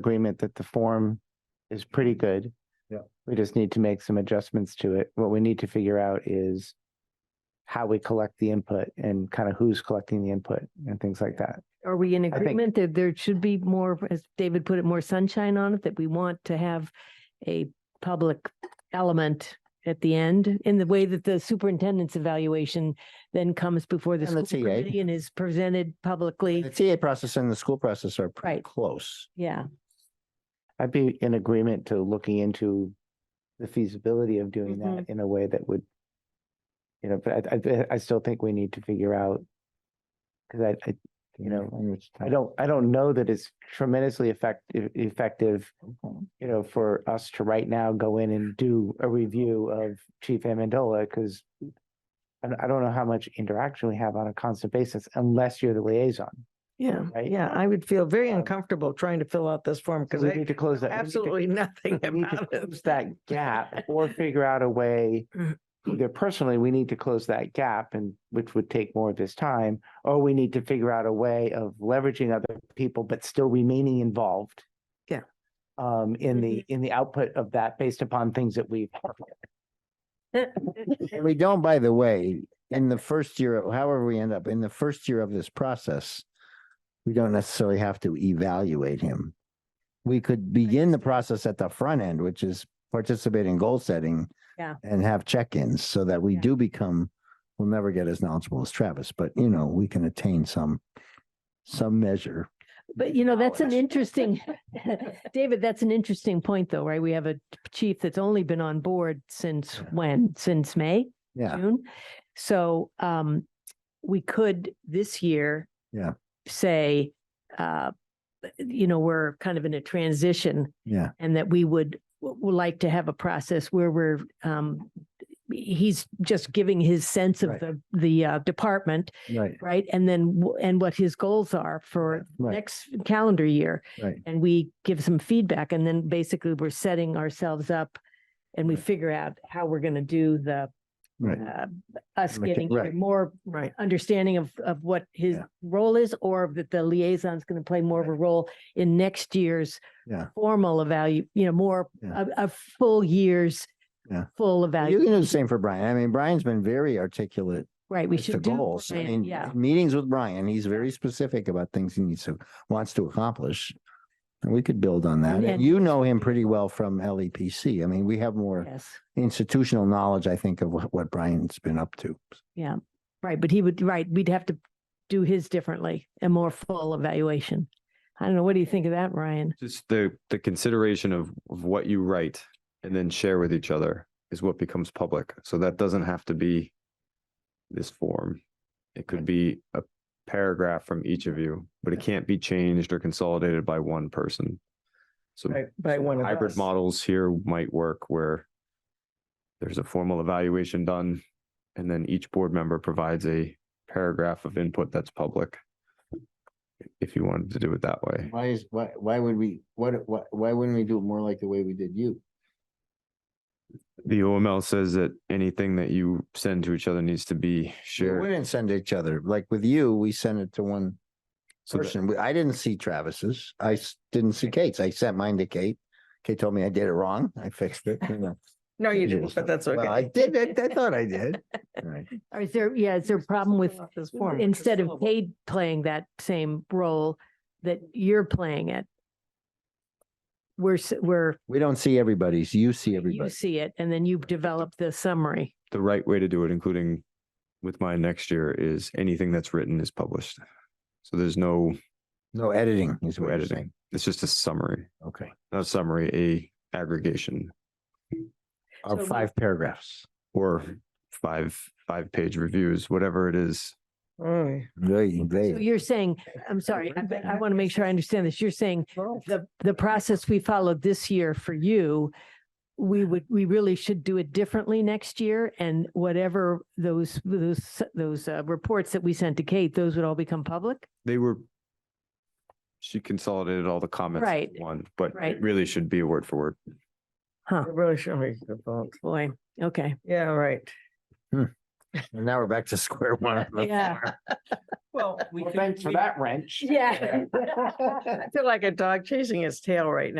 agreement that the form is pretty good. Yeah. We just need to make some adjustments to it. What we need to figure out is how we collect the input and kind of who's collecting the input and things like that. Are we in think- agreement that there should be more, as David put it, more sunshine on it, that we want to have a public element at the end in the way that the superintendent's evaluation then comes before the And the school TA. committee and is presented publicly? The TA process and the school process are pretty Right. close. Yeah, I'd be in agreement to looking into the feasibility of doing that in a way that would, you know, but I, I, I still think we need to figure out because I, I, you know, I don't, I don't know that it's tremendously effective, effective, you know, for us to right now go in and do a review of Chief Amendola because I, don't- I don't know how much interaction we have on a constant basis unless you're the liaison. Yeah, Right? yeah, I would feel very Um, uncomfortable trying to fill out this form So because we I need to close that. we need to- absolutely nothing we need to about close it. Mm. that gap or figure out a way. Either personally, we need to close that gap and which would take more of his time, or we need to figure out a way of leveraging other people, but still remaining involved. Yeah. Mm-hmm. Um, in the, in the output of that based upon things that we've. And we don't, Oh, by the way, in the first year, however we end up, in the first year of this process, we don't necessarily have to evaluate him. We could begin the process at the front end, which is participate in goal setting. Yeah. And have check-ins so that we Yeah. do become, we'll never get as knowledgeable as Travis, but you know, we can attain some, some measure. but you know, that's an Knowledge. interesting, David, that's an interesting point though, right? We have a chief that's only been on board since Yeah. when? Since May? Yeah, June. So um, we could this year. Yeah. Say, uh, you know, we're kind of in a transition yeah. and that we would, would like to have a process where we're, um, he's just giving his sense of Right. the, the uh, department, Right, right? And then, w- and what his goals are for right, next calendar year. right. And we give some feedback and then basically we're setting ourselves up and we figure out how we're going to do the Right. uh, us Mecha- getting either right. more Right. understanding of, of what his Yeah. role is, or that the liaison's going to play more of a role in next year's Yeah. formal evalu, you know, more, Yeah. a, a full year's Yeah. full You evaluation. can do the same for Brian. I mean, Brian's been very articulate right? We as to should do, goals. I Brian, mean, yeah, meetings with Brian, he's very specific about things he needs to, wants to accomplish. And we could build on that. And- And you know him pretty well from LEPC. I mean, we have more yes, institutional knowledge, I think, of what what Brian's been up to. right, but he would, right, we'd have to do his differently, a more full evaluation. I don't know, what do you think of that, Ryan? Just the, the consideration of, of what you write and then share with each other is what becomes public. So that doesn't have to be this form. It could be a paragraph from each of you, but it can't be changed or consolidated by one person. So By one of hybrid us. models here might work where there's a formal evaluation done and then each board member provides a paragraph of input that's public. If you wanted to do it that way. Why is, why, why would we, what, why, why wouldn't we do it more like the way we did you? The OML says that anything that you send to each other needs to be We shared. wouldn't send each other. Like with you, we sent it to one So that- person. We- I didn't see Travis's. I s- didn't see Kate's. I sent mine to Kate. Kate told me I did it wrong. I fixed it. you know. No, you Digital didn't, stuff. but that's Well, I okay. did, I- I thought I did. Right. Or is there, yeah, is there a problem with This form, which is instead of fillable. Cade playing that same role that you're playing it. We're, s- we're, We don't see everybody's, you see you everybody. see it and then you develop the summary. The right way to do it, including with mine next year, is anything that's written is published. So there's no No editing is no what you're saying. editing. It's just a summary, Okay. not a summary, a aggregation So Our we- five paragraphs. or five, five page reviews, whatever it is. Oh, yeah. Very So vague. you're saying, I'm sorry, I, but I want to make sure I understand this. You're saying the, the process we followed this year for you, we would, we really should do it differently next year and whatever those, those, those uh, reports that we sent to Kate, those would all become public? They were, she consolidated all the comments Right. into one, but Right. it really should be word for word. It Really should be. good, folks. Boy, okay. Yeah, right. Hmm. And now we're back to square one. on the Yeah. floor. Well, we Well, could- thanks for we- that wrench. Yeah. I feel like a dog chasing its tail right now.